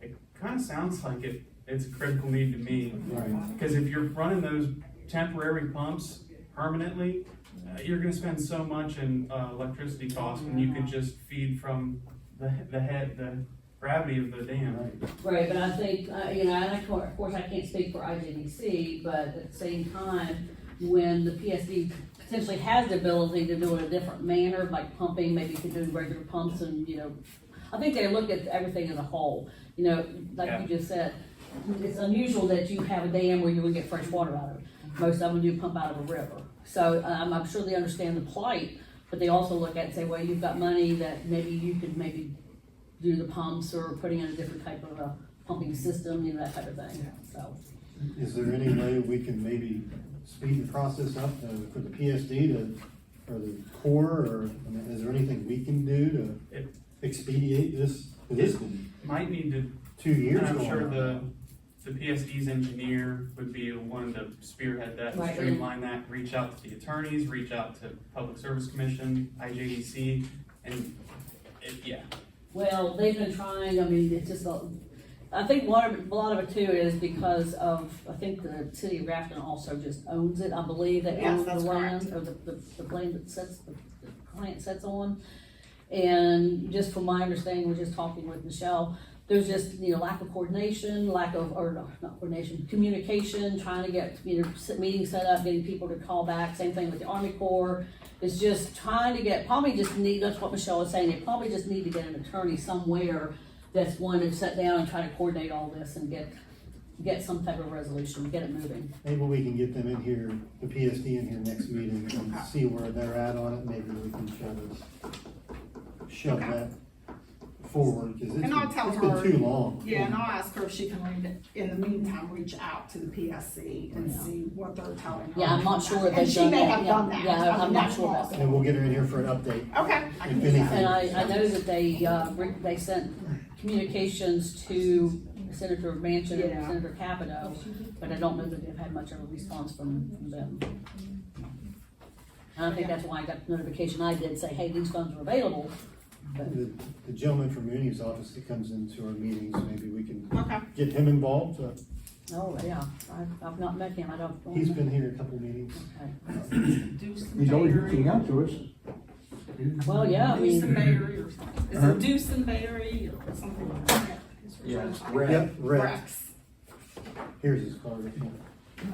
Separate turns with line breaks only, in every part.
kinda sounds like it, it's a critical need to me.
Right.
Cause if you're running those temporary pumps permanently, uh, you're gonna spend so much in, uh, electricity costs when you could just feed from the, the head, the gravity of the dam.
Right.
Right, but I think, uh, you know, and of cour- of course, I can't speak for IGDC, but at the same time, when the PSD potentially has the ability to do it a different manner, like pumping, maybe you could do regular pumps and, you know, I think they look at everything as a whole, you know, like you just said, it's unusual that you have a dam where you would get fresh water out of it. Most of them do pump out of a river. So, um, I'm sure they understand the plight, but they also look at it and say, well, you've got money that maybe you could maybe do the pumps or putting in a different type of a pumping system, you know, that type of thing, so.
Is there any way we can maybe speed the process up uh, for the PSD to, or the core, or, I mean, is there anything we can do
It-
to expedite this? This has been
Might need to
two years
And I'm
going
sure
on.
the, the PSD's engineer would be the one to spearhead that, and
Right.
streamline that, reach out to the attorneys, reach out to Public Service Commission, IJDC, and, it, yeah.
Well, they've been trying, I mean, it's just, a- I think a lot of, a lot of it too is because of, I think the city of Grafton also just owns it, I believe, they
Yes,
own the
that's
land, or the, the, the land that sets, the the client sets on. And just from my understanding, we're just talking with Michelle, there's just, you know, lack of coordination, lack of, or no, not coordination, communication, trying to get, you know, s- meetings set up, getting people to call back, same thing with the Army Corps. It's just trying to get, probably just need, that's what Michelle was saying, they probably just need to get an attorney somewhere that's one to sit down and try to coordinate all this and get, get some type of resolution, get it moving.
Maybe we can get them in here, the PSD in here next meeting and see where they're at on it, maybe we can shove this, shove
Okay.
that forward, cause it's
And I'll tell
been, it's been
her-
too long.
Yeah, and I'll ask her if she can, read it. in the meantime, reach out to the PSC and see what they're telling her.
Yeah, I'm not sure if
And
they've
she
done
may
that,
have
yeah.
done that.
Yeah,
I
I'm
mean,
not
that's
sure about
possible.
And we'll get her in here for an update.
Okay. I can
If
do that.
anything.
And I, I know that they, uh, re- they sent communications to Senator Manchin and
Yeah.
Senator Capito, but I don't know that they've had much of a response from them. And I think that's why I got the notification I did, say, hey, these funds are available, but,
The the gentleman from Uni's office that comes into our meetings, maybe we can
Okay,
get him involved, uh,
oh, yeah, I've, I've not met him, I don't.
he's been here a couple meetings.
Okay.
do some
He's always
Bayberry.
reaching out to us.
Well, yeah, I
Do some
mean,
Bayberry or something. Is
Uh-huh.
Huh?
it do some Bayberry or something like that?
Yeah, it's
Yep, Rex,
Rex.
here's his card.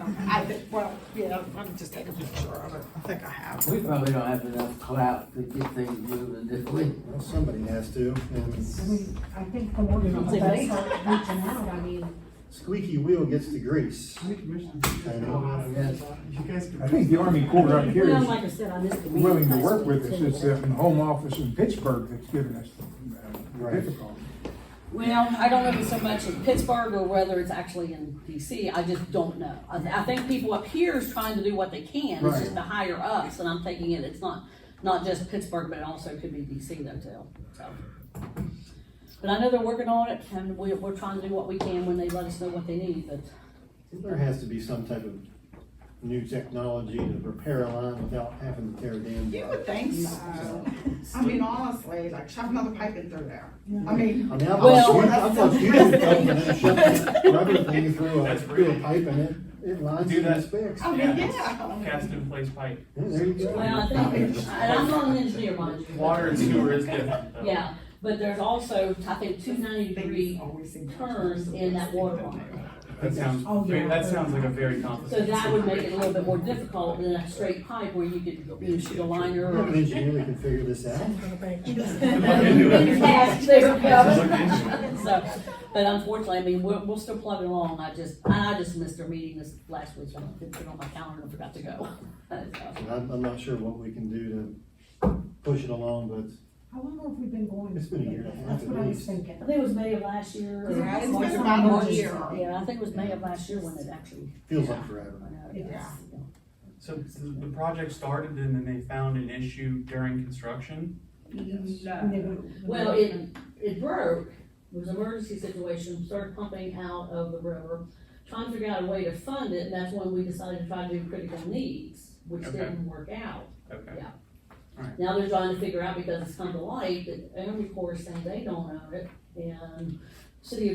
Okay. I think, well, yeah, I'm just taking a picture of it. I think I have.
We probably don't have enough clout to get things moving, do we?
Well, somebody has to,
I
and
mean, I think the more people they start reaching out, I mean,
squeaky wheel gets the grease. I know.
Yes.
I think the Army Corps up here
well,
is
like I said, I missed the meeting.
willing to work with us, it's the home office in Pittsburgh that's giving us the uh,
Right.
difficulty.
well, I don't know if it's so much in Pittsburgh or whether it's actually in DC, I just don't know. I, I think people up here is trying to do what they can, it's just
Right.
the higher ups, and I'm thinking it, it's not, not just Pittsburgh, but it also could be DC though too, so. But I know they're working on it, and we, we're trying to do what we can when they let us know what they need, but,
There has to be some type of new technology to repair a line without having to tear a damn.
You
line.
would think so. I mean, honestly, like shove another pipe in through there. I
I
mean.
mean, I
Well-
thought you, I thought you did something and shove that rubber thing through a,
That's
through a
really-
pipe and it, it lines
Do
in the
that.
specs.
I mean,
Yeah.
Oh, yeah.
Cast in place pipe.
Yeah, there you go.
well, I think, and I'm not an engineer, mind you. but-
Water and sewer is different. though.
Yeah, but there's also, I think, two ninety
Things
degree
always seem to-
turns in that water line.
That sounds,
Oh, yeah.
that sounds like a very
So
complicated.
that would make it a little bit more difficult than a straight pipe where you could, you know, shoot a liner
I'm an
or.
engineer that can figure this out.
Yes, there
Look
we go.
into it.
So, but unfortunately, I mean, we're, we're still plugging along, I just, I just missed our meeting this last week, I didn't put it on my calendar and forgot to go. So,
And I'm, I'm not sure what we can do to push it along, but
How long have we been going?
It's been a year and a half
That's what I
at
was
least.
thinking.
I think it was May of last year. or-
Yeah,
it's been about a year.
Yeah, I think it was May of last year when it actually
feels like forever.
went out.
It
yes, yeah.
So the the project started and then they found an issue during construction?
And they
No.
would-
Well, it, it broke, it was an emergency situation, started pumping out of the river, trying to figure out a way to fund it, and that's when we decided to try to do critical needs, which
Okay.
didn't work out.
Okay.
Now they're trying to figure out, because it's come to light, that Army Corps is saying they don't own it, and City of